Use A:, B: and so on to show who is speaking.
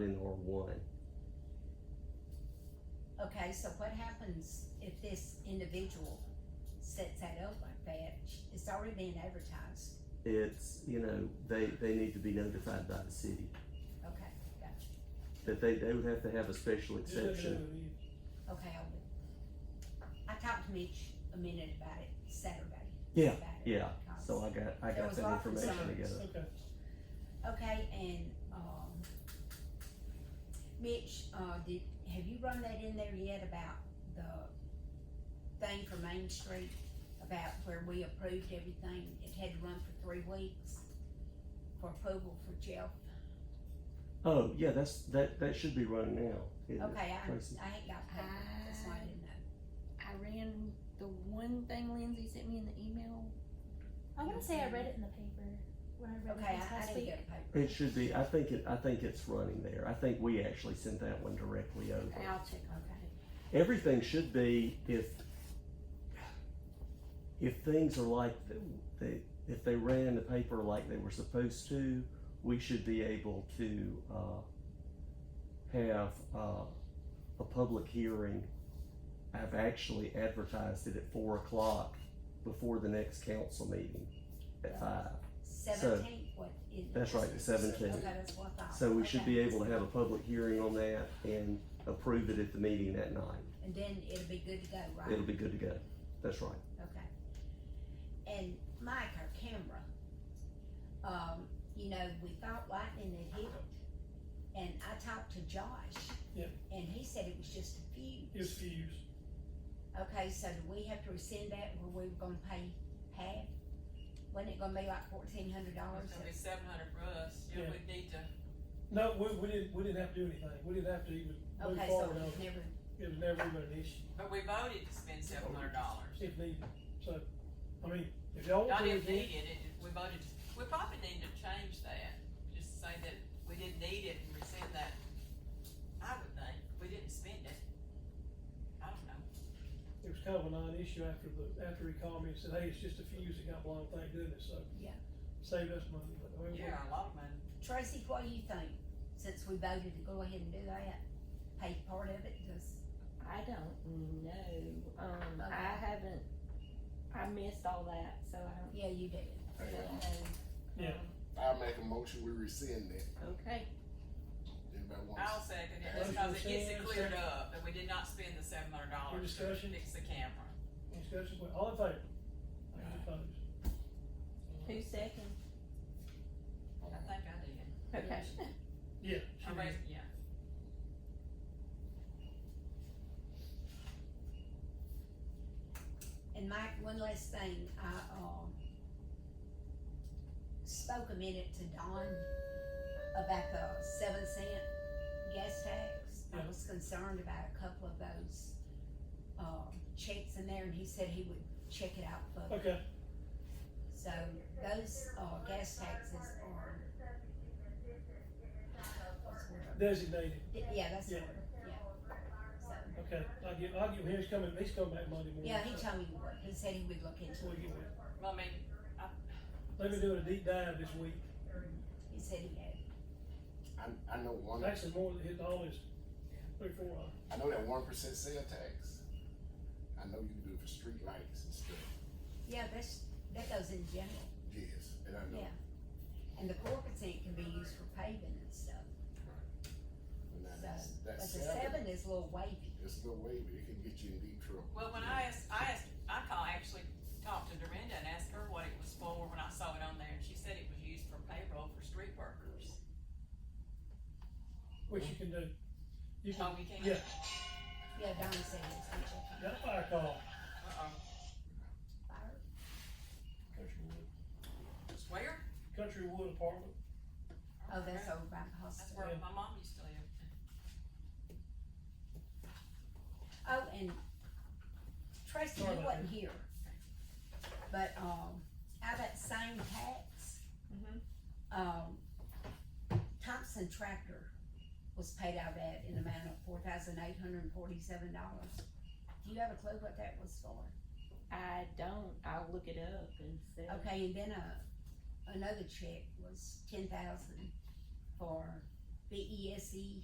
A: in R one.
B: Okay, so what happens if this individual sets that up like that? It's already been advertised.
A: It's, you know, they, they need to be notified by the city,
B: Okay, gotcha.
A: that they, they would have to have a special exception.
C: Well,
B: Okay, I will. I talked to Mitch a minute about it Saturday.
D: Yeah.
B: About it,
A: Yeah,
B: because-
A: so I got, I
B: There
A: got
B: was
A: that
B: lots of
A: information
B: signs.
A: together.
C: Okay,
B: Okay, and, um, Mitch, uh, did, have you run that in there yet about the thing for Main Street? About where we approved everything, it had to run for three weeks for approval for jail.
A: Oh, yeah, that's, that, that should be running now. Yeah.
B: Okay, I,
A: Tracy.
B: I ain't got paper, that's why I didn't know.
E: I ran the one thing Lindsay sent me in the email.
F: I want to say I read it in the paper when I
A: Ah,
F: read
B: Okay,
F: it this
B: I, I
F: last
B: didn't
F: week.
B: get a paper.
A: It should be, I think it, I think it's running there. I think we actually sent that one directly over.
E: I'll check on
B: Okay.
A: everything should be if if things are like th- they if they ran the paper like they were supposed to, we should be able to uh, have uh, a public hearing. I've actually advertised it at four o'clock before the next council meeting at five.
B: Seventeenth, what is?
A: That's right, the
B: Okay,
A: seventeenth.
B: that's what I thought.
A: So we should
B: Okay.
A: be able to have a public hearing on that and approve it at the meeting that night.
B: And then it'll be good to go, right?
A: It'll be good to go. That's right.
B: Okay. And Mike, our camera, um, you know, we thought lightning had hit it. And I talked to Josh.
C: Yep.
B: And he said it was just a few.
C: it's fused.
B: Okay, so do we have to rescind that where we were gonna pay half? Wasn't it gonna be like fourteen hundred dollars?
G: It's gonna be seven hundred for us, yeah,
C: Yeah.
G: we need to,
C: No, we, we didn't, we didn't have to do anything, we didn't have to even move
B: Okay, so
C: forward, on
B: it's
C: it.
B: never,
C: it was never even an issue,
G: but we voted to spend seven hundred dollars.
C: if needed, so, I mean, if y'all want
G: Not
C: to.
G: if
C: again-
G: needed, it, we voted, we probably need to change that, just say that we didn't need it and rescind that. I would think, we didn't spend it. I don't know,
C: it was kind of a non-issue after the, after he called me and said, hey, it's just a fuse that got blown, thank goodness, so.
B: Yeah.
C: Saved us money, but I mean, we-
G: yeah, a lot of money.
B: Tracy, what do you think? Since we voted to go ahead and do that, pay part of it, does,
E: I don't know. Um,
B: Okay.
E: I haven't. I missed all that, so I
B: yeah, you did.
E: don't,
H: Hang
E: don't
H: on.
E: know. Um,
C: Yeah.
H: I make a motion, we rescind that.
E: Okay.
H: Anybody
G: I'll
H: wants?
G: second it,
C: Motion
G: just cause it gets it
C: rescind,
G: cleared
C: second.
G: up, that we did not spend the seven hundred
C: Any
G: dollars to
C: discussion?
G: fix the camera.
C: any discussion, Well, all in favor? Any opposed?
E: Who second?
G: I think I did,
E: Okay.
C: Yeah.
G: I
C: she
G: raised,
C: did.
G: yeah.
B: And Mike, one last thing, I, um, spoke a minute to Don about the seven cent gas tax. I
C: Yeah.
B: was concerned about a couple of those, um, checks in there, and he said he would check it out for
C: Okay,
B: So those, uh, gas taxes are. what's the word?
C: designated,
B: Yeah, that's the
C: Yeah.
B: word, yeah. So,
C: okay, I'll give, I'll give him, he's coming, he's coming back Monday morning.
B: yeah, he
C: so
B: told me, he would. he said he would look into
C: We'll
B: it.
C: get with him.
G: Well, I mean,
C: They've been doing a deep dive this week,
B: He said he had.
H: I, I know one, I
C: actually more than his, all his, three, four uh, of them.
H: know that one percent sale tax. I know you can do it for street lights and stuff,
B: Yeah, that's, that goes in general.
H: yes, and I know,
B: Yeah. And the four percent can be used for paving and stuff,
H: but now
B: So,
H: that's,
B: but the
H: that's seven,
B: seven is a little wavy.
H: it's no way, but it can get you in deep trouble.
G: Well, when I asked, I asked, I call, actually talked to Dorinda and asked her what it was for when I saw it on there, and she said it was used for payroll for street workers.
C: which you can do. You can,
G: Oh, we can't?
C: yeah,
B: Yeah, Don said it's gonna check on
C: got a fire call,
G: Uh-oh.
B: fire.
H: Countrywood.
G: Where?
C: Country Wood Apartment,
B: Oh, that's
G: Okay.
B: over by the
G: That's
B: hospital.
G: where my mom used to live.
B: Oh, and Tracy,
C: Sorry
B: you
C: about
B: wasn't here. But, um, out of that same tax,
E: Mm-hmm.
B: um, Thompson Tractor was paid out of that in the amount of four thousand eight hundred and forty-seven dollars. Do you have a clue what that was for?
E: I don't. I'll look it up and see.
B: uh, Okay, and then a, another check was ten thousand for B E S E